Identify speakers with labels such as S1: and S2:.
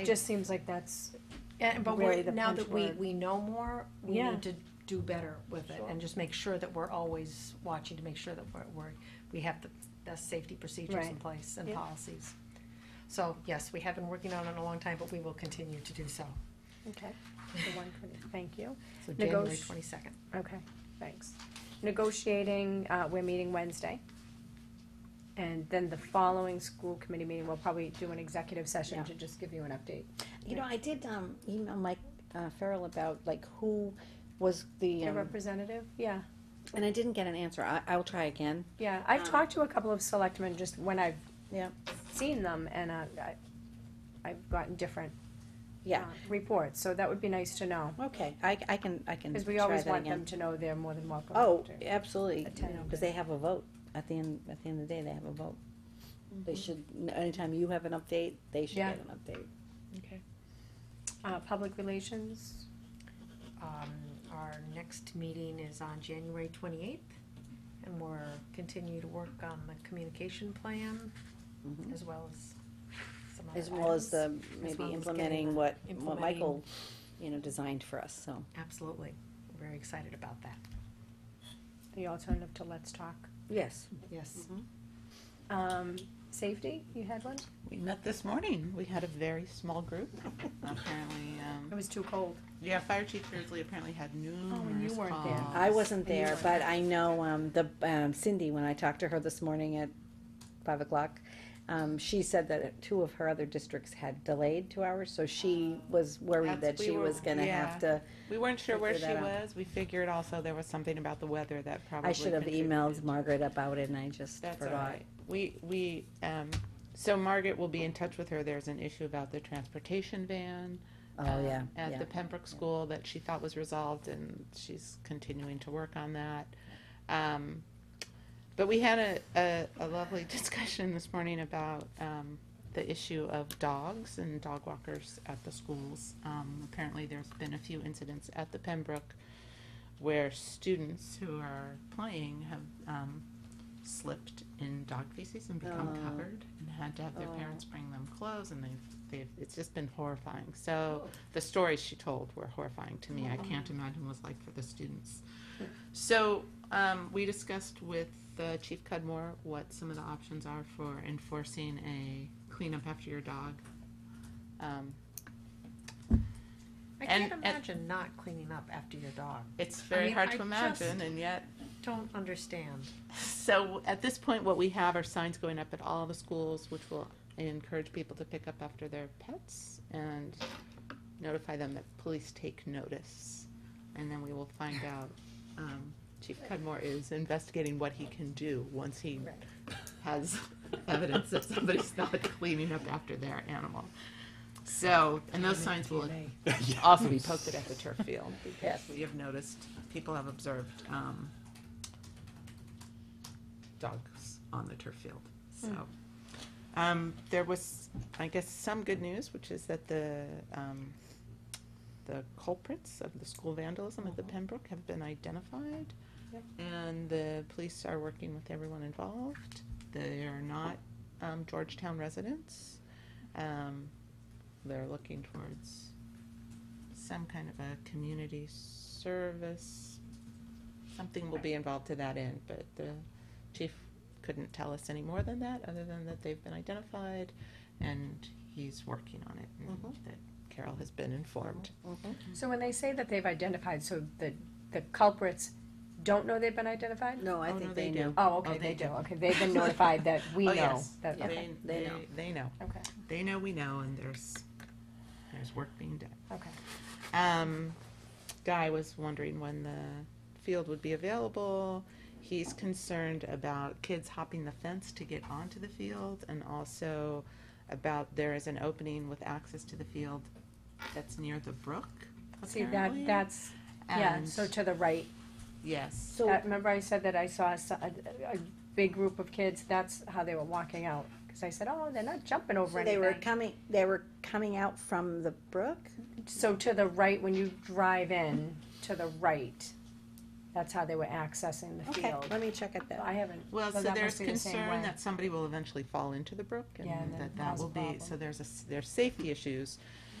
S1: It just seems like that's,
S2: And, but
S1: really
S2: we're,
S1: the
S2: now
S1: punch
S2: that we,
S1: board.
S2: we know more, we
S1: Yeah.
S2: need to do better with it
S3: Sure.
S2: and just make sure that we're always watching to make sure that we're, we're, we have the best safety procedures in
S1: Right.
S2: place and
S1: Yeah.
S2: policies. So, yes, we have been working on it a long time, but we will continue to do so.
S1: okay, the one twenty, thank you,
S2: So January
S1: Negoti-
S2: twenty-second.
S1: okay, thanks. Negotiating, uh, we're meeting Wednesday. And then the following school committee meeting, we'll probably do an executive session
S4: Yeah.
S1: to just give you an update.
S4: You know, I did, um, email Mike, uh, Farrell about like who was the,
S1: Your
S4: um,
S1: representative, yeah,
S4: and I didn't get an answer. I, I'll try again.
S1: yeah, I've
S4: Um,
S1: talked to a couple of selectmen just when I've
S4: Yeah.
S1: seen them and, uh, I, I've gotten different.
S4: Yeah.
S1: uh, Reports, so that would be nice to know,
S4: Okay, I, I can, I can
S1: cause we
S4: Mm, try
S1: always
S4: that
S1: want them
S4: again.
S1: to know they're more than welcome.
S4: Oh,
S1: to-
S4: absolutely,
S1: attend.
S4: because they have a vote. At the end, at the end of the day, they have a vote. They
S2: Mm-hmm.
S4: should, anytime you have an update, they should
S1: Yeah.
S4: get an update.
S2: Okay.
S1: Uh, public relations,
S2: Um, our next meeting is on January twenty-eighth, and we're continue to work on the communication plan
S1: Mm-hmm.
S4: Mhm.
S2: as well as some other
S4: As well as
S2: items.
S4: the,
S2: as
S4: maybe
S2: well as
S4: implementing
S2: getting the-
S4: what, what
S2: implementing.
S4: Michael, you know, designed for us, so.
S2: Absolutely. We're very excited about that.
S1: the alternative to Let's Talk.
S4: Yes.
S2: Yes.
S1: Um, safety, you had one?
S5: We met this morning. We had a very small group. Apparently, um,
S1: It was too cold.
S5: yeah, Fire Chief Beardsley apparently had numerous
S1: Oh, and you weren't there.
S5: calls.
S4: I wasn't
S1: And you
S4: there,
S1: weren't
S4: but
S1: there.
S4: I know, um, the, um, Cindy, when I talked to her this morning at five o'clock, um, she said that two of her other districts had delayed two hours, so she was worried
S5: That's-
S4: that
S5: we
S4: she
S5: were-
S4: was gonna have to,
S5: We weren't sure where she
S4: Figure that out.
S5: was. We figured also there was something about the weather that probably.
S4: I should have emailed
S5: contributed.
S4: Margaret about it and I just
S5: That's all
S4: forgot.
S5: right. We, we, um, so Margaret will be in touch with her. There's an issue about the transportation van.
S4: Oh,
S5: um,
S4: yeah,
S5: At
S4: yeah.
S5: the Pembroke School that she thought was resolved and she's continuing to work on that. Um, but we had a, a, a lovely discussion this morning about, um, the issue of dogs and dog walkers at the schools. Um, apparently there's been a few incidents at the Pembroke where students who are playing have, um, slipped in dog feces and become
S4: Oh.
S5: covered and had to have their
S4: Oh.
S5: parents bring them clothes and they've they've it's just been horrifying so the stories she told were horrifying to me i can't
S2: Mm-hmm.
S5: imagine what it's like for the students so um, we discussed with uh, chief cudmore what some of the options are for enforcing a clean up after your dog um,
S2: I
S5: And-
S2: can't
S5: and-
S2: imagine not cleaning up after your dog.
S5: it's very
S2: mean,
S5: hard
S2: I
S5: to
S2: just-
S5: imagine and yet
S2: Don't understand.
S5: So at this point, what we have are signs going up at all the schools, which will encourage people to pick up after their pets and notify them that police take notice. And then we will find out. Um, Chief Cudmore is investigating what he can do once he
S2: Right.
S5: has evidence that somebody's not cleaning up after their animal. So, and those signs will also be posted at the turf field because we have noticed, people have observed, um, dogs on the turf field, so. Um, there was, I guess, some good news, which is that the, um, the culprits of the school vandalism at the Pembroke have been identified.
S1: Yep.
S5: And the police are working with everyone involved. They are not, um, Georgetown residents. Um, they're looking towards some kind of a community service. Something will be involved to that end, but the chief couldn't tell us any more than that, other than that they've been identified and he's working on it and that Carol has been
S1: Mm-hmm.
S5: informed. Mm-hmm.
S1: So when they say that they've identified, so the, the culprits don't know they've been identified?
S4: No, I
S5: Oh,
S4: think
S5: no,
S4: they
S5: they do.
S4: knew.
S1: Oh, okay,
S5: Oh,
S1: they
S5: they
S1: do,
S5: do.
S1: okay, they've been notified that we know.
S5: Oh, yes.
S1: that-
S4: Yeah.
S1: Okay,
S5: They,
S4: they
S5: they,
S4: know.
S5: they know.
S1: okay,
S5: They know we know and there's, there's work being done.
S1: okay.
S5: Um, Guy was wondering when the field would be available. He's concerned about kids hopping the fence to get onto the field and also about there is an opening with access to the field that's near the brook.
S1: See, that,
S5: apparently.
S1: that's, yeah,
S5: And-
S1: so to the right,
S5: Yes.
S4: So,
S1: That- remember I said that I saw a, a- a big group of kids, that's how they were walking out. Cause I said, oh, they're not jumping over
S4: so they were
S1: anything.
S4: coming, they were coming out from the brook?
S1: So to the right, when you drive in, to the right, that's how they were accessing the
S4: Okay,
S1: field.
S4: let me check it
S1: I
S4: then.
S1: haven't,
S5: Well,
S1: So
S5: so
S1: that
S5: there's
S1: must be the same
S5: concern
S1: way.
S5: that somebody will eventually fall into the brook
S1: Yeah,
S5: and
S1: and then
S5: that that
S1: cause a
S5: will be,
S1: problem.
S5: so there's a, s- there's safety issues